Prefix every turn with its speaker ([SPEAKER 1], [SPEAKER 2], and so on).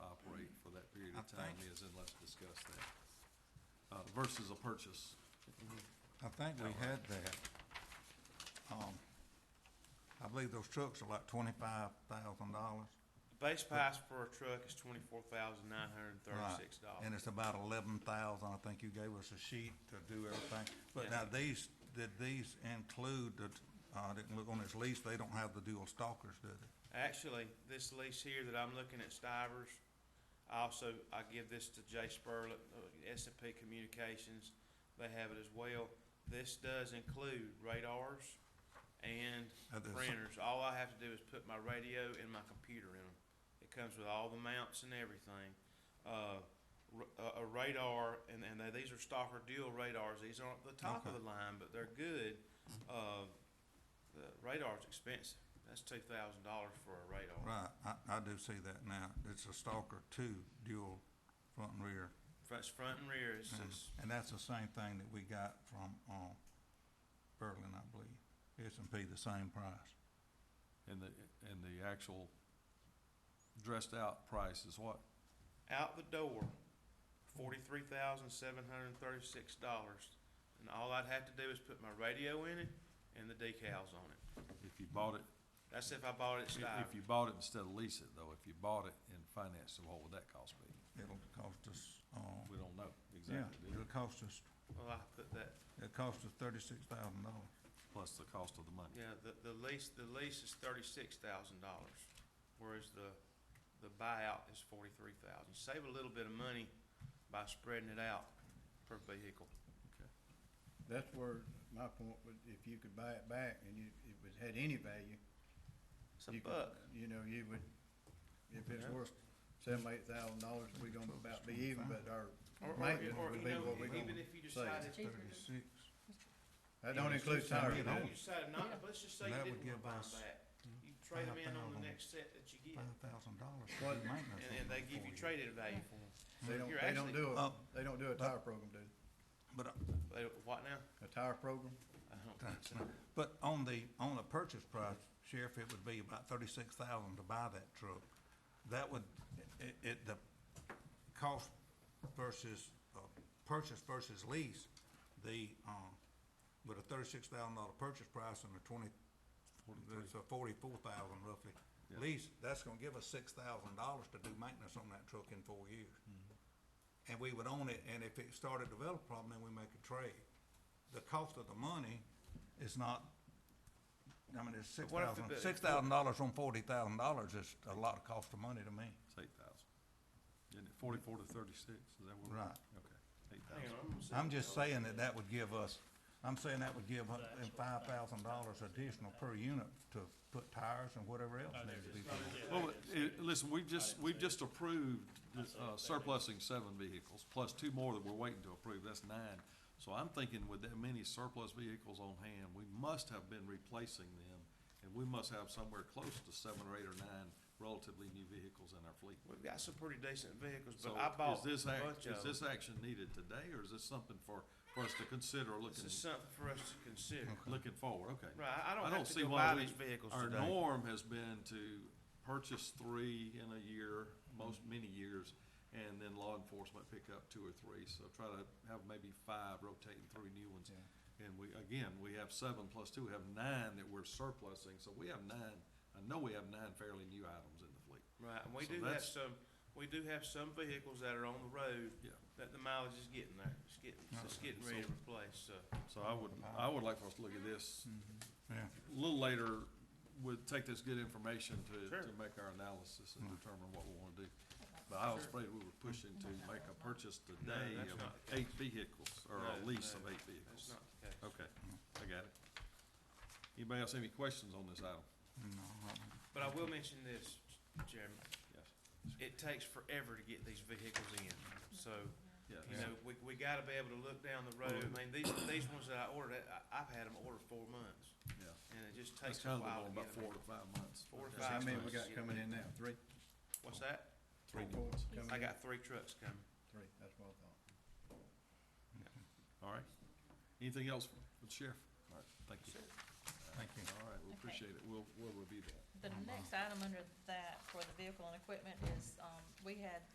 [SPEAKER 1] Uh,
[SPEAKER 2] economy is, and let's discuss that, uh, versus a purchase.
[SPEAKER 1] I think we had that. Um, I believe those trucks are like twenty-five thousand dollars.
[SPEAKER 3] Base price for a truck is twenty-four thousand nine hundred and thirty-six
[SPEAKER 1] And
[SPEAKER 3] dollars.
[SPEAKER 1] it's about eleven thousand, I think you gave us a sheet to do everything. But
[SPEAKER 3] Yeah.
[SPEAKER 1] now these, did these include the, uh, I didn't look on this lease, they don't have the dual stalkers, do they?
[SPEAKER 3] Actually, this lease here that I'm looking at Stivers, I also, I give this to Jay Spurlet, S and P Communications, they have it as well. This does include radars and
[SPEAKER 1] Uh, there's-
[SPEAKER 3] printers. All I have to do is put my radio and my computer in them. It comes with all the mounts and everything. Uh, r- a, a radar, and, and they, these are Stalker Dual radars. These aren't the top of
[SPEAKER 1] Okay.
[SPEAKER 3] the line, but they're good. Uh, the radar's expensive. That's two thousand dollars for a radar.
[SPEAKER 1] Right, I, I do see that now. It's a stalker two, dual front and rear.
[SPEAKER 3] Front, front and rear is
[SPEAKER 1] And-
[SPEAKER 3] is-
[SPEAKER 1] And that's the same thing that we got from, um, Berlin, I believe. S and P, the same price.
[SPEAKER 2] And the, and the actual dressed-out price is what?
[SPEAKER 3] out the door, forty-three thousand seven hundred and thirty-six dollars. And all I'd have to do is put my radio in it and the decals on it.
[SPEAKER 2] If you bought it,
[SPEAKER 3] That's if I bought it at
[SPEAKER 2] if
[SPEAKER 3] Stivers.
[SPEAKER 2] if you bought it instead of lease it, though, if you bought it and financed it, what would that cost be?
[SPEAKER 1] It'll cost us, um,
[SPEAKER 2] We don't know
[SPEAKER 1] yeah,
[SPEAKER 2] exactly, do we?
[SPEAKER 1] it'll cost us,
[SPEAKER 3] Well, I put that,
[SPEAKER 1] it'll cost us thirty-six thousand dollars.
[SPEAKER 2] plus the cost of the money.
[SPEAKER 3] yeah, the, the lease, the lease is thirty-six thousand dollars, whereas the, the buyout is forty-three thousand. Save a little bit of money by spreading it out per vehicle.
[SPEAKER 4] That's where my point was, if you could buy it back and you, it was, had any value.
[SPEAKER 3] It's a
[SPEAKER 4] you could-
[SPEAKER 3] buck.
[SPEAKER 4] You know, you would, if it's
[SPEAKER 3] Yeah.
[SPEAKER 4] worth seven, eight thousand dollars, we are gonna about be even, but our
[SPEAKER 3] Or, or,
[SPEAKER 4] maintenance
[SPEAKER 3] or,
[SPEAKER 4] would
[SPEAKER 3] you
[SPEAKER 4] be
[SPEAKER 3] know,
[SPEAKER 4] what we
[SPEAKER 3] even
[SPEAKER 4] gonna.
[SPEAKER 3] if you
[SPEAKER 4] save.
[SPEAKER 3] decided,
[SPEAKER 5] Cheaper.
[SPEAKER 1] Thirty-six,
[SPEAKER 4] That don't
[SPEAKER 1] Yeah, it's
[SPEAKER 4] include
[SPEAKER 1] just
[SPEAKER 4] tires.
[SPEAKER 1] something
[SPEAKER 3] No,
[SPEAKER 1] Yeah.
[SPEAKER 3] you decided not, but let's just say you
[SPEAKER 1] That would
[SPEAKER 3] didn't want to
[SPEAKER 1] give
[SPEAKER 3] buy 'em
[SPEAKER 1] us
[SPEAKER 3] back. You trade them in on the
[SPEAKER 1] 5,000.
[SPEAKER 3] next set that you get,
[SPEAKER 1] five thousand dollars to
[SPEAKER 4] What-
[SPEAKER 1] do maintenance.
[SPEAKER 3] and, and
[SPEAKER 1] on
[SPEAKER 3] they
[SPEAKER 1] them
[SPEAKER 3] give
[SPEAKER 1] for
[SPEAKER 3] you traded value for them.
[SPEAKER 4] They don't,
[SPEAKER 3] You're
[SPEAKER 4] they don't
[SPEAKER 3] actually-
[SPEAKER 4] do a,
[SPEAKER 1] Uh,
[SPEAKER 4] they don't do a tire program, do they?
[SPEAKER 1] But, uh,
[SPEAKER 3] They, what now?
[SPEAKER 4] A tire program?
[SPEAKER 3] I don't think so.
[SPEAKER 1] but on the, on the purchase price, Sheriff, it would be about thirty-six thousand to buy that truck. That would, it, it, the cost versus, uh, purchase versus lease, the, um, with a thirty-six thousand dollar purchase price and a twenty, it's a forty-four thousand roughly
[SPEAKER 2] Yeah.
[SPEAKER 1] lease, that's gonna give us six thousand dollars to do maintenance on that truck in four years. And we would own it, and if it started to develop a problem, then we make a trade. The cost of the money is not, I mean, it's six
[SPEAKER 3] what if
[SPEAKER 1] thousand,
[SPEAKER 3] the-
[SPEAKER 1] six thousand dollars on forty thousand dollars is a lot of cost of money to me.
[SPEAKER 2] It's eight thousand. Isn't it forty-four to thirty-six? Is that what?
[SPEAKER 1] Right.
[SPEAKER 2] Okay, eight
[SPEAKER 3] Hang
[SPEAKER 2] thousand.
[SPEAKER 3] on, gonna see
[SPEAKER 1] I'm
[SPEAKER 3] what
[SPEAKER 1] just
[SPEAKER 3] y'all-
[SPEAKER 1] saying that that would give us, I'm saying that would give us five thousand dollars additional per unit to put tires and whatever else needs to be. done.
[SPEAKER 2] Well, it, listen, we've just, we've just approved, uh, surplusing seven vehicles, plus two more that we're waiting to approve, that's nine. So I'm thinking with that many surplus vehicles on hand, we must have been replacing them, and we must have somewhere close to seven or eight or nine relatively new vehicles in our fleet.
[SPEAKER 3] We've got some pretty decent vehicles,
[SPEAKER 2] So
[SPEAKER 3] but I
[SPEAKER 2] is
[SPEAKER 3] bought a
[SPEAKER 2] this ac-
[SPEAKER 3] bunch of
[SPEAKER 2] Is
[SPEAKER 3] them.
[SPEAKER 2] this action needed today, or is this something for, for us to consider
[SPEAKER 3] This
[SPEAKER 2] looking,
[SPEAKER 3] is something for us to consider.
[SPEAKER 2] looking forward, okay?
[SPEAKER 3] Right, I- I don't
[SPEAKER 2] I
[SPEAKER 3] have
[SPEAKER 2] don't
[SPEAKER 3] to
[SPEAKER 2] see
[SPEAKER 3] go
[SPEAKER 2] why
[SPEAKER 3] buy
[SPEAKER 2] we-
[SPEAKER 3] these vehicles
[SPEAKER 2] Our
[SPEAKER 3] today.
[SPEAKER 2] norm has been to purchase three in a year, most, many years, and then law enforcement pick up two or three, so try to have maybe five rotating through new ones. And we, again, we have seven plus two, we have nine that we're surplusing, so we have nine, I know we have nine fairly new items in the fleet.
[SPEAKER 3] Right, and we
[SPEAKER 2] So
[SPEAKER 3] do have
[SPEAKER 2] that's-
[SPEAKER 3] some, we do have some vehicles that are on the road
[SPEAKER 2] Yeah.
[SPEAKER 3] that the mileage is getting there. It's getting, it's getting ready to replace, so.
[SPEAKER 2] So I would, I would like for us to look at this
[SPEAKER 1] Yeah. Mm-hmm.
[SPEAKER 2] a little later, would take this good information to,
[SPEAKER 3] Sure.
[SPEAKER 2] to make our analysis
[SPEAKER 3] Mm-hmm.
[SPEAKER 2] and determine what we wanna do. But I was afraid we were pushing to make a purchase today
[SPEAKER 3] that's
[SPEAKER 2] of
[SPEAKER 3] not the
[SPEAKER 2] eight vehicles, or a
[SPEAKER 3] No,
[SPEAKER 2] lease of
[SPEAKER 3] no,
[SPEAKER 2] eight
[SPEAKER 3] That's
[SPEAKER 2] vehicles.
[SPEAKER 3] not the case.
[SPEAKER 2] Okay, I got it. Anybody else have any questions on this item?
[SPEAKER 1] No, I-
[SPEAKER 3] But I will mention this, Jeremy.
[SPEAKER 2] Yes.
[SPEAKER 3] It takes forever to get these vehicles in, so, you
[SPEAKER 2] Yeah,
[SPEAKER 3] know, we, we gotta be able to look down the road. I mean, these, these ones that I ordered, I, I've had them ordered four months,
[SPEAKER 2] yeah.
[SPEAKER 3] and it just
[SPEAKER 2] That's
[SPEAKER 3] takes a
[SPEAKER 2] kind of the
[SPEAKER 3] while
[SPEAKER 2] one,
[SPEAKER 3] to
[SPEAKER 2] about
[SPEAKER 3] get 'em
[SPEAKER 2] four
[SPEAKER 3] in.
[SPEAKER 2] to five months.
[SPEAKER 3] Four to
[SPEAKER 2] Yeah.
[SPEAKER 4] So How
[SPEAKER 3] five
[SPEAKER 4] many
[SPEAKER 3] months.
[SPEAKER 4] we got coming in now? Three?
[SPEAKER 3] What's that?
[SPEAKER 2] Three new
[SPEAKER 4] Four
[SPEAKER 2] ones.
[SPEAKER 4] coming
[SPEAKER 3] I
[SPEAKER 4] in?
[SPEAKER 3] got three trucks coming.
[SPEAKER 4] Three, that's what I thought.
[SPEAKER 2] All right. Anything else for the sheriff? All right, thank you.
[SPEAKER 1] Thank you.
[SPEAKER 2] All right, we
[SPEAKER 5] Okay.
[SPEAKER 2] appreciate it. We'll, we'll review that.
[SPEAKER 5] The next item under that for the vehicle and equipment is, um, we had